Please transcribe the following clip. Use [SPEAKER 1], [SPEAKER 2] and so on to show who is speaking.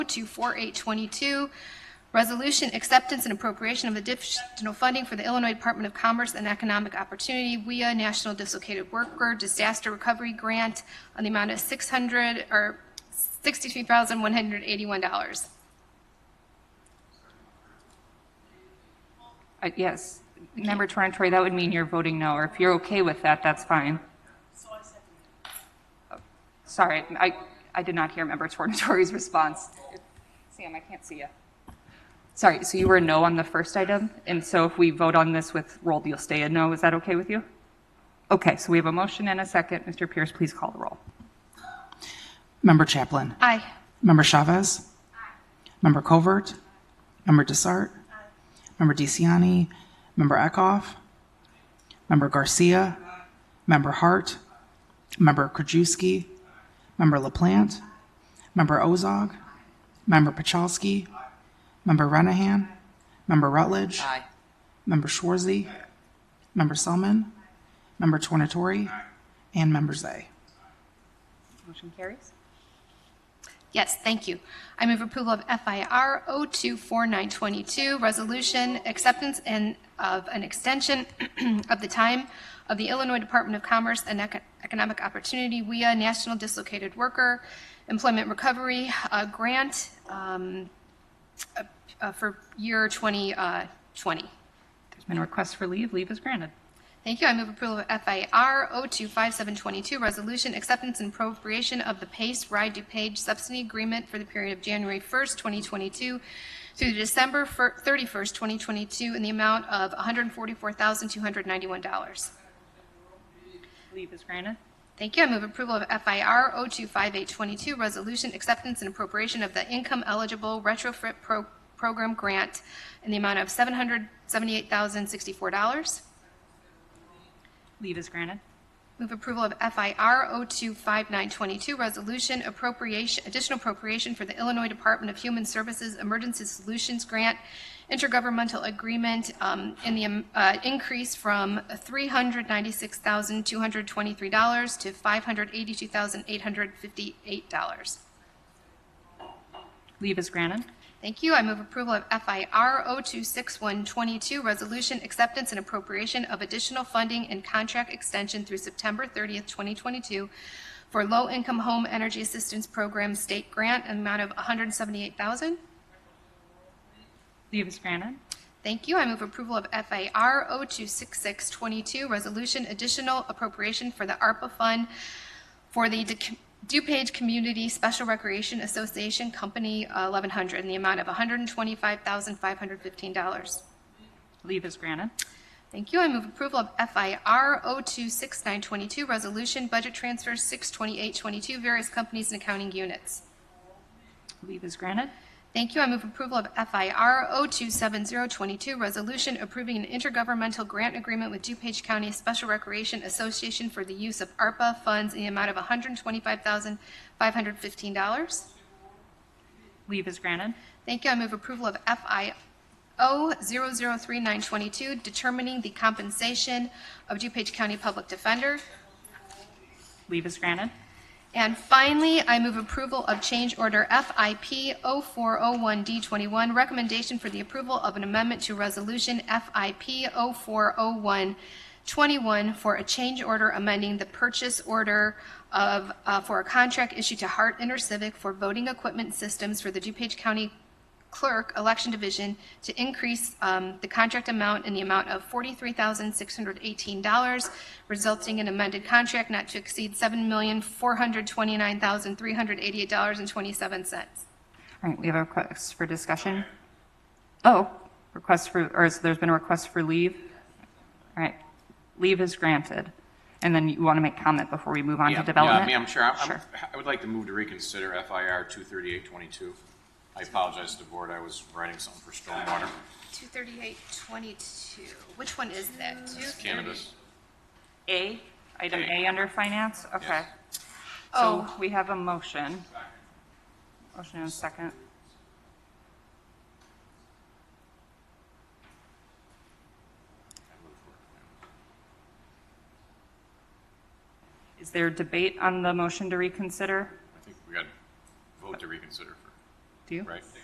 [SPEAKER 1] to 4822, Resolution Acceptance and Appropriation of Additional Funding for the Illinois Department of Commerce and Economic Opportunity via National Dislocated Worker Disaster Recovery Grant on the amount of 600, or $63,181.
[SPEAKER 2] Uh, Yes. Member Torrentori, that would mean you're voting no, or if you're okay with that, that's fine. Oh, Sorry, I, I did not hear Member Torrentori's response. Sam, I can't see you. Sorry, so you were a no on the first item, and so if we vote on this with roll, you'll stay a no. Is that okay with you? Okay, so we have a motion and a second. Mr. Pierce, please call the roll.
[SPEAKER 3] Member Chaplin.
[SPEAKER 1] Aye.
[SPEAKER 3] Member Chavez. Member Covert. Member Desart. Member DeCiani. Member Eckhoff. Member Garcia. Member Hart. Member Krajewski. Member LaPlante. Member Ozog. Member Pachalski. Member Renahan. Member Rutledge. Member Schwarzy. Member Selman. Member Tornatori. And Member Zay.
[SPEAKER 2] Motion carries.
[SPEAKER 1] Yes, thank you. I oh move approval of FIR 024922, Resolution Acceptance and of an Extension of the Time of the Illinois Department of Commerce and Eco- Economic Opportunity via National Dislocated Worker Employment Recovery uh, Grant um, uh, uh, for year uh, 2020.
[SPEAKER 2] There's been a request for leave. Leave is granted.
[SPEAKER 1] Thank you. I oh move approval of FIR 025722, Resolution Acceptance and Appropriation of the PACE Ride to Page Subsidy Agreement for the period of January 1st, 2022 through December fir- 31st, 2022, in the amount of $144,291.
[SPEAKER 2] Leave is granted.
[SPEAKER 1] Thank you. I oh move approval of FIR 025822, Resolution Acceptance and Appropriation of the Income Eligible Retrofit Pro- Program Grant in the amount of $778,064.
[SPEAKER 2] Leave is granted.
[SPEAKER 1] Move approval of FIR 025922, resolution appropriation, additional appropriation for the Illinois Department of Human Services Emergency Solutions Grant Intergovernmental Agreement um, in the um, uh, increase from $396,223 to $582,858.
[SPEAKER 2] Leave is granted.
[SPEAKER 1] Thank you. I move approval of FIR 026122, Resolution Acceptance and Appropriation of Additional Funding and Contract Extension through September 30th, 2022 for Low Income Home Energy Assistance Program State Grant, an amount of $178,000.
[SPEAKER 2] Leave is granted.
[SPEAKER 1] Thank you. I move approval of FAR 026622, Resolution Additional Appropriation for the ARPA Fund for the Du- DuPage Community Special Recreation Association Company uh, 1100 in the amount of $125,515.
[SPEAKER 2] Leave is granted.
[SPEAKER 1] Thank you. I move approval of FIR 026922, Resolution Budget Transfer 62822, Various Companies and Accounting Units.
[SPEAKER 2] Leave is granted.
[SPEAKER 1] Thank you. I oh move approval of FIR 027022, resolution approving an intergovernmental grant agreement with DuPage County Special Recreation Association for the use of ARPA funds in the amount of $125,515.
[SPEAKER 2] Leave is granted.
[SPEAKER 1] Thank you. I move approval of FIO 003922, determining the compensation of DuPage County Public Defender.
[SPEAKER 2] Leave is granted.
[SPEAKER 1] And finally, I move approval of change order FIP 0401D21, recommendation for the approval of an amendment to resolution FIP 040121 for a change order amending the purchase order of, uh, for a contract issued to Hart InterCivic for voting equipment systems for the DuPage County Clerk Election Division to increase um, the contract amount in the amount of $43,618, resulting in amended contract not to exceed $7,429,388.27.
[SPEAKER 2] All right, we have a request for discussion. Oh, request for, or is- there's been a request for leave? All right, leave is granted. And then you want to make comment before we move on to
[SPEAKER 4] Yeah,
[SPEAKER 2] development?
[SPEAKER 4] Yeah, ma'am, sure. I'm-
[SPEAKER 2] Sure.
[SPEAKER 4] I'm- I would like to move to reconsider FIR 23822. I apologize to the board, I was writing something for stormwater
[SPEAKER 1] 23822, which one is that?
[SPEAKER 4] cannabis.
[SPEAKER 2] A, item A under finance, okay. So
[SPEAKER 1] Oh,
[SPEAKER 2] we have a motion. Motion and a second. Is there debate on the motion to reconsider?
[SPEAKER 4] I think we got to vote to reconsider. for-
[SPEAKER 2] Do you?
[SPEAKER 4] right?